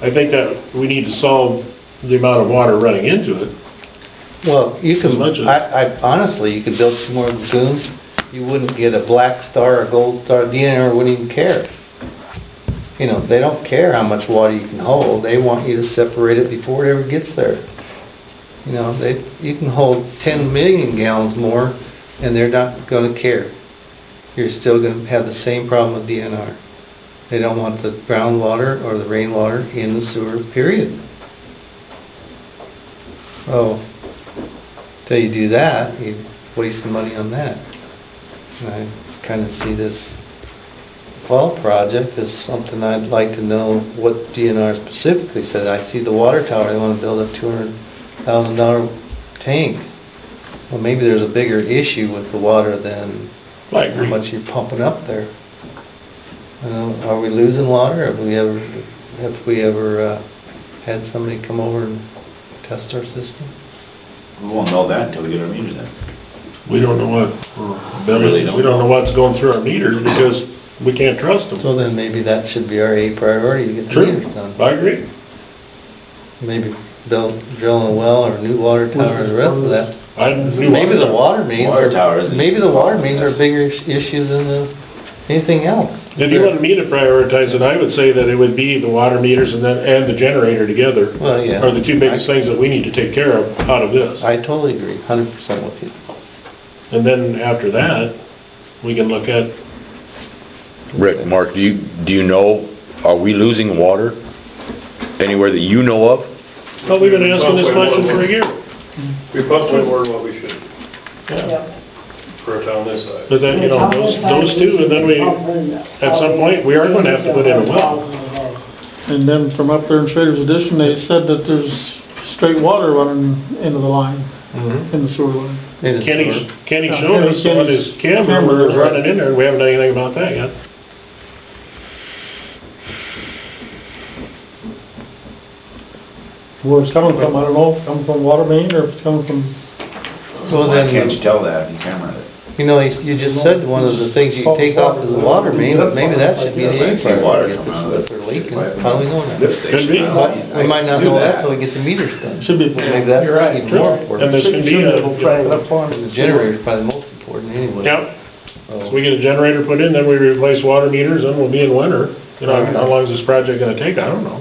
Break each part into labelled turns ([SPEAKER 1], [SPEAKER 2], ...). [SPEAKER 1] I think that we need to solve the amount of water running into it.
[SPEAKER 2] Well, you could,
[SPEAKER 1] As much as-
[SPEAKER 2] I, I, honestly, you could build two more lagoons, you wouldn't get a black star or gold star, the DNR wouldn't even care. You know, they don't care how much water you can hold, they want you to separate it before it ever gets there. You know, they, you can hold ten million gallons more, and they're not gonna care. You're still gonna have the same problem with DNR. They don't want the groundwater or the rainwater in the sewer, period. Oh, till you do that, you waste the money on that. And I kind of see this fall project as something I'd like to know what DNR specifically said. I see the water tower, they want to build a two hundred thousand dollar tank. Well, maybe there's a bigger issue with the water than
[SPEAKER 1] I
[SPEAKER 2] how
[SPEAKER 1] agree.
[SPEAKER 2] much you're pumping up there. Uh, Are we losing water? Have we ever, have we ever uh, had somebody come over and test our system?
[SPEAKER 3] We won't know that until we get our meter then.
[SPEAKER 1] We don't know what, we're
[SPEAKER 3] Really
[SPEAKER 1] building.
[SPEAKER 3] don't.
[SPEAKER 1] we don't Mm-hmm. know what's going through our meters because we can't trust them.
[SPEAKER 2] So then maybe that should be our A priority to get the
[SPEAKER 1] True,
[SPEAKER 2] meters done.
[SPEAKER 1] I agree.
[SPEAKER 2] Maybe build, drilling a well or new water tower or the rest of that.
[SPEAKER 1] I knew-
[SPEAKER 2] Maybe the water mains
[SPEAKER 3] Water
[SPEAKER 2] are,
[SPEAKER 3] tower isn't-
[SPEAKER 2] maybe the water mains are a bigger is- issue than the, anything else.
[SPEAKER 1] If you wanted me to prioritize it, I would say that it would be the water meters and then, and the generator together
[SPEAKER 2] Well, yeah.
[SPEAKER 1] are the two biggest things that we need to take care of out of this.
[SPEAKER 2] I totally agree, hundred percent with you.
[SPEAKER 1] And then after that, we can look at,
[SPEAKER 4] Rick, Mark, do you, do you know, are we losing water anywhere that you know of?
[SPEAKER 1] well, we've been asking this question for a year.
[SPEAKER 5] We pumped way more than what we should
[SPEAKER 1] Yeah.
[SPEAKER 5] for a town this size.
[SPEAKER 1] But then, you know, those, those two, and then we,
[SPEAKER 6] at
[SPEAKER 1] some point, we are gonna have to put in a well.
[SPEAKER 7] And then from up there in Shredder's Addition, they said that there's straight water running into the line, in the sewer line.
[SPEAKER 2] Mm-hmm. It is
[SPEAKER 1] Kenny,
[SPEAKER 2] sort of-
[SPEAKER 1] Kenny showed us on his camera, where it was running in there, and we haven't done anything about that yet.
[SPEAKER 7] Where it's coming from, I don't know, if it's coming from water main or if it's coming from,
[SPEAKER 2] Well,
[SPEAKER 3] Why can't
[SPEAKER 2] then,
[SPEAKER 3] you tell that if you camera it?
[SPEAKER 2] you know, you you just said one of the things you can take off is the water main, but maybe that should be the
[SPEAKER 3] I
[SPEAKER 2] A
[SPEAKER 3] see water
[SPEAKER 2] priority.
[SPEAKER 3] come
[SPEAKER 2] If
[SPEAKER 3] out of
[SPEAKER 2] it's- if
[SPEAKER 3] it.
[SPEAKER 2] they're leaking, how do we know
[SPEAKER 3] Lift
[SPEAKER 2] that?
[SPEAKER 3] station.
[SPEAKER 1] Could be.
[SPEAKER 3] I don't
[SPEAKER 2] But
[SPEAKER 3] know.
[SPEAKER 2] We might not
[SPEAKER 3] Do
[SPEAKER 2] know that
[SPEAKER 3] that.
[SPEAKER 2] till we get the meters done.
[SPEAKER 7] should be.
[SPEAKER 2] Maybe that's even more important.
[SPEAKER 1] And this can be, a-
[SPEAKER 2] The generator's probably the most important anyway.
[SPEAKER 1] yeah,
[SPEAKER 2] So-
[SPEAKER 1] so we get a generator put in, then we replace water meters, then we'll be in winter. You know, how long is this project gonna take? I don't know.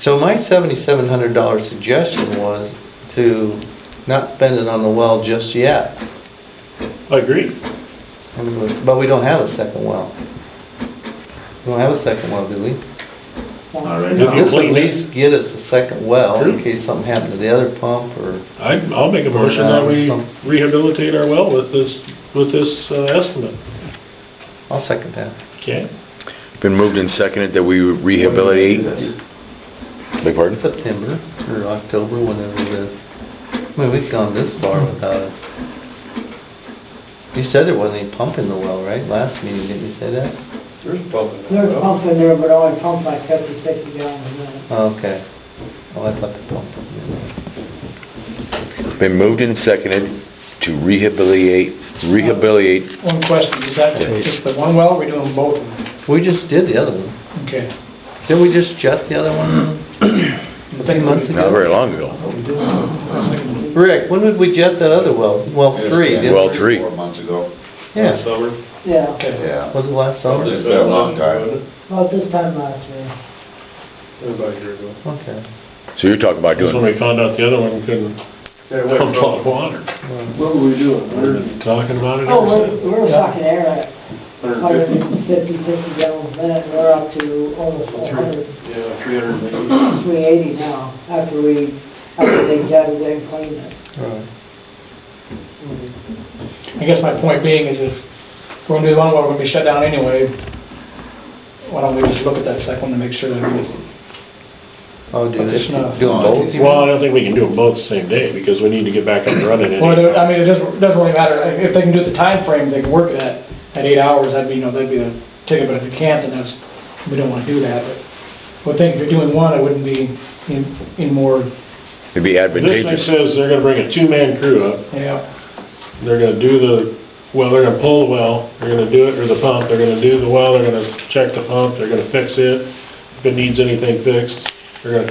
[SPEAKER 2] So my seventy-seven hundred dollar suggestion was to not spend it on the well just yet.
[SPEAKER 1] I agree.
[SPEAKER 2] I mean, we- But we don't have a second well. We don't have a second well, do we?
[SPEAKER 3] All right.
[SPEAKER 1] If you
[SPEAKER 2] This would at
[SPEAKER 1] clean it.
[SPEAKER 2] least get us a second well
[SPEAKER 1] True.
[SPEAKER 2] in case something happened to the other pump or,
[SPEAKER 1] I, I'll make a motion that we rehabilitate our well with this, with this uh, estimate.
[SPEAKER 2] I'll second that.
[SPEAKER 1] Okay?
[SPEAKER 4] Been moved and seconded that we
[SPEAKER 3] Do
[SPEAKER 4] rehabilitate?
[SPEAKER 3] this.
[SPEAKER 4] Beg pardon?
[SPEAKER 2] September or October, whenever the, I mean, we've gone this far without us. You said there wasn't any pump in the well, right? Last meeting, didn't you say that?
[SPEAKER 5] There's a pump in that
[SPEAKER 6] There's a
[SPEAKER 5] well.
[SPEAKER 6] pump in there, but only pump like fifty, sixty gallons a minute.
[SPEAKER 2] Oh, Okay. Oh, I thought the pump was in there.
[SPEAKER 4] Been moved and seconded to rehabilitate, rehabilitate,
[SPEAKER 8] One question, is that just the one well, or we doing both of them?
[SPEAKER 2] We just did the other one.
[SPEAKER 8] Okay.
[SPEAKER 2] Didn't we just shut the other one a few months ago?
[SPEAKER 4] not very long ago.
[SPEAKER 2] Rick, when did we jet that other well? Well, three, didn't
[SPEAKER 4] Well,
[SPEAKER 2] we?
[SPEAKER 4] three.
[SPEAKER 3] Four months ago.
[SPEAKER 2] Yeah.
[SPEAKER 5] Summer.
[SPEAKER 6] Yeah,
[SPEAKER 3] Yeah.
[SPEAKER 2] Was it last summer?
[SPEAKER 3] It's been a long time.
[SPEAKER 6] about this time uh, last year.
[SPEAKER 5] About a year ago.
[SPEAKER 2] Okay.
[SPEAKER 4] So you're talking about
[SPEAKER 1] That's when
[SPEAKER 4] doing,
[SPEAKER 1] we found out the other one couldn't pump hot water.
[SPEAKER 5] What were we doing?
[SPEAKER 1] We've been Talking about it
[SPEAKER 6] Oh,
[SPEAKER 1] ever since.
[SPEAKER 6] we're, we're sucking air at hundred and fifty, sixty gallons a minute, we're up to almost a hundred,
[SPEAKER 5] Yeah, three hundred and eighty.
[SPEAKER 6] three eighty now, after we, after they jetted it and cleaned it.
[SPEAKER 2] Alright.
[SPEAKER 8] I guess my point being is if we're gonna do the one well, we're gonna be shut down anyway, why don't we just look at that second one to make sure that we,
[SPEAKER 2] Oh, dude,
[SPEAKER 8] But
[SPEAKER 2] if
[SPEAKER 8] it's
[SPEAKER 2] you
[SPEAKER 8] not-
[SPEAKER 2] do them both? you
[SPEAKER 1] Well, I don't think we can do them both the same day because we need to get back up and running.
[SPEAKER 8] well,
[SPEAKER 1] anyhow.
[SPEAKER 8] I mean, it doesn't, doesn't really matter, if they can do it the time frame, they can work it at, at eight hours, that'd be, you know, that'd be the ticket, but if they can't, then that's, we don't wanna do that, but I would think if you're doing one, it wouldn't be in, in more,
[SPEAKER 4] it'd be
[SPEAKER 1] This thing
[SPEAKER 4] advantageous.
[SPEAKER 1] says they're gonna bring a two-man crew up,
[SPEAKER 8] you know,
[SPEAKER 1] they're gonna do the, well, they're gonna pull the well, they're gonna do it, or the pump, they're gonna do the well, they're gonna check the pump, they're gonna fix it, if it needs anything fixed, They're gonna